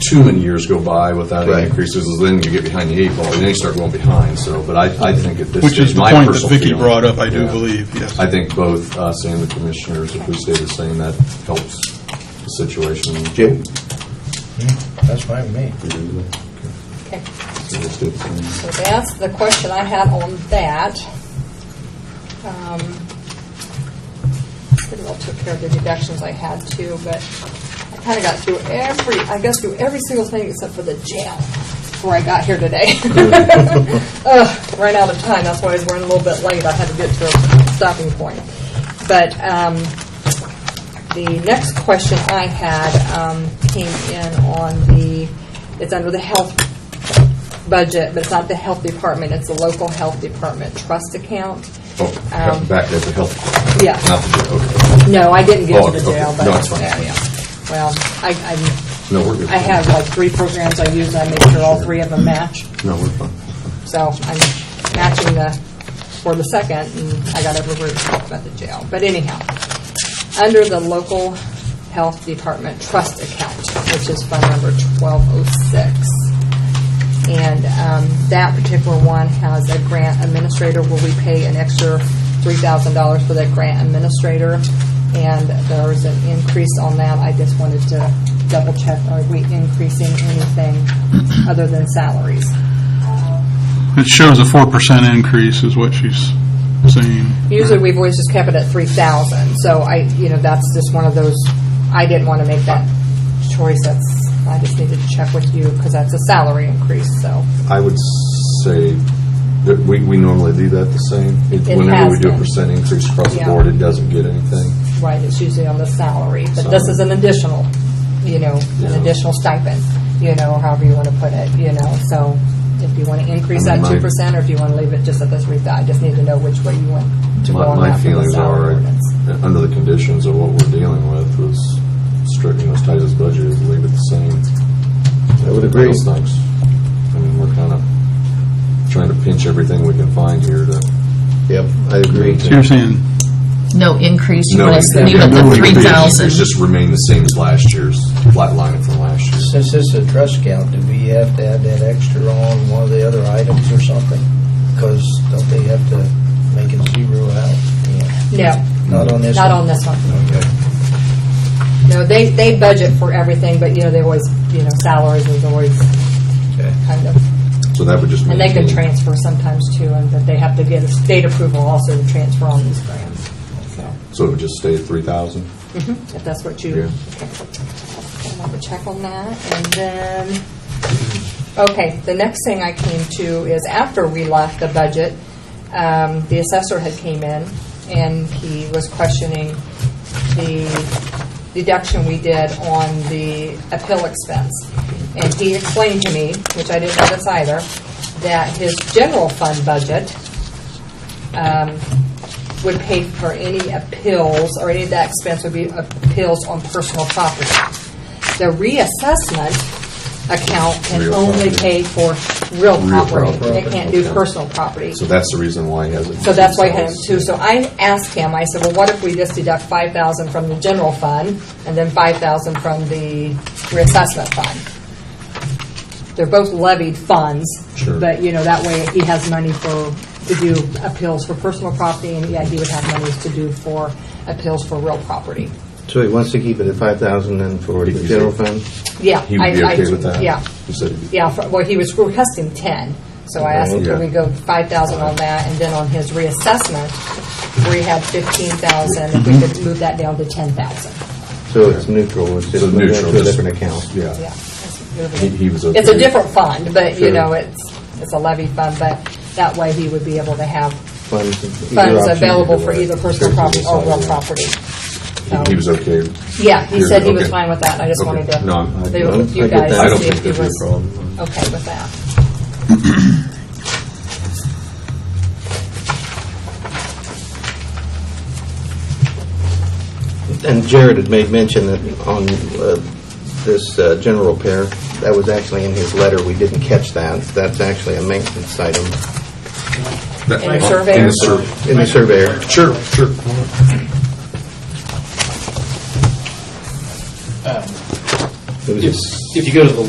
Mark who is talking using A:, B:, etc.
A: too many years go by without
B: Right.
A: any increases, is then you get behind the eight ball, and then you start going behind, so, but I, I think at this
C: Which is
A: stage,
C: the
A: my
C: point that
A: personal
C: Vicky
A: feeling-
C: brought up, I do
A: Yeah.
C: believe, yes.
A: I think both us and the commissioners, if we stay the same, that helps the situation.
B: Jim?
D: That's fine with me.
E: Okay,
A: It's good.
E: so that's the question I had on that. Um, Pretty well took care of the deductions I had too, but I kind of got through every, I guess through every single thing except for the jail before I got here today. Ugh, Ran out of time, that's why I was running a little bit late, I had to get to a stopping point. But um, the next question I had um, came in on the, it's under the health budget, but it's not the health department, it's the local health department trust account.
A: Oh,
E: Um,
A: Back at the health,
E: Yeah.
A: not the, okay.
E: No, I didn't get
A: Oh,
E: to
A: okay,
E: the
A: okay.
E: jail, but.
A: No, it's fine.
E: yeah, yeah. Well, I, I.
A: No, we're good.
E: I have like three programs I use, I make sure all three of them match.
A: No, we're fine.
E: So I'm matching the, for the second, and I got over to talk about the jail. But anyhow, under the local health department trust account, which is fund number 1206. And um, that particular one has a grant administrator where we pay an extra $3,000 for that grant administrator. And there is an increase on that. I just wanted to double check, are we increasing anything other than salaries?
C: It shows a 4% increase is what she's saying.
E: Usually, we've always just kept it at 3,000, so I, you know, that's just one of those, I didn't want to make that choice, that's, I just needed to check with you, because that's a salary increase, so.
A: I would say that we, we normally do that the same. It-
E: It
A: Whenever we
E: has
A: do a
E: been.
A: percent increase across the
E: Yeah.
A: board, it doesn't get anything.
E: Right, it's usually on the salary, but this
A: Salary.
E: is an additional, you know,
A: Yeah.
E: an additional stipend, you know, or however you want to put it, you know, so if you want to increase
A: I
E: that
A: mean, my-
E: 2%, or if you want to leave it just at the 3,000, I just need to know which way you want to go
A: My,
E: on
A: my
E: that for the
A: feelings
E: salary
A: are,
E: ordinance.
A: uh, under the conditions of what we're dealing with, was strictly as tight as budget, is leave it the same.
B: I would agree.
A: Those things. I mean, we're kind of trying to pinch everything we can find here to.
B: Yep, I agree.
C: So you're saying,
F: No increase, you
A: No,
F: want us to
A: yeah,
F: leave it
A: no
F: the
A: increase.
F: 3,000.
A: It's Just remain the same as last year's, flat line from last year.
D: Since this is a trust account, do we have to add that extra on one of the other items or something? Because don't they have to make it zero out? Yeah.
E: No,
D: Not on this one?
E: not on this one.
D: Okay.
E: No, they, they budget for everything, but, you know, they always, you know, salaries is always
D: Okay.
E: kind of,
A: So that would just.
E: and they can
A: maintain-
E: transfer sometimes too, and that they have to get a state approval also to transfer on these grants, so,
A: So it would just stay at three thousand?
E: Mm-hmm. if that's what
A: Yeah.
E: you. okay. I'll have to check on that, and then, okay, the next thing I came to is after we left the budget, um, the assessor had came in, and he was questioning the deduction we did on the appeal expense. And he explained to me, which I didn't notice either, that his general fund budget um, would pay for any appeals, or any of that expense would be appeals on personal property. The reassessment account can
A: Real
E: only
A: property.
E: pay for real
A: Real
E: property.
A: property,
E: It can't do
A: okay.
E: personal property.
A: So that's the reason why he has it.
E: So that's why I had him too. So I asked him, I said, well, what if we just deduct five thousand from the general fund and then five thousand from the reassessment fund? They're both levied funds.
A: Sure.
E: But, you know, that way he has money for, to do appeals for personal property and yeah, he would have monies to do for appeals for real property.
B: So he wants to keep it at five thousand and for
A: He
B: the
A: can
B: general
A: say-
B: fund?
E: Yeah.
A: He would
E: I-
A: be
E: I-
A: okay with that?
E: Yeah.
A: He said he'd be-
E: Yeah, for- well, he was requesting 10, so I asked him,
A: Oh, Yeah.
E: could we go 5,000 on that, and then on his reassessment, we had 15,000, if we could move that down to 10,000.
B: So it's neutral, it's just
A: So
B: moving it
A: neutral,
B: to a
A: just-
B: different account?
E: Yeah.
A: Yeah. He- he was
E: It's a
A: okay.
E: different fund, but, you
A: Sure.
E: know, it's, it's a levy fund, but that way he would be able to have
B: Funds either
E: funds
B: option,
E: available
B: either
E: for
B: way.
E: either personal property or real property. Um,
A: He- He was okay.
E: Yeah, he said he was
A: Okay.
E: fine with that, I just
A: Okay.
E: wanted to
A: No, I'm- I-
E: leave it with
B: I
E: you
B: get
E: guys
B: that.
A: I
E: to
A: don't
E: see if
A: think
E: he
A: there'd be a
E: was
A: problem.
E: okay with that.
B: And Jared had made mention that on uh, this uh, general repair, that was actually in his letter, we didn't catch that. That's actually a maintenance item
E: And the surveyor?
A: In the survey.
B: in the surveyor.
A: Sure, sure.
G: Um,
B: It was
G: If
B: just-
G: if you go to the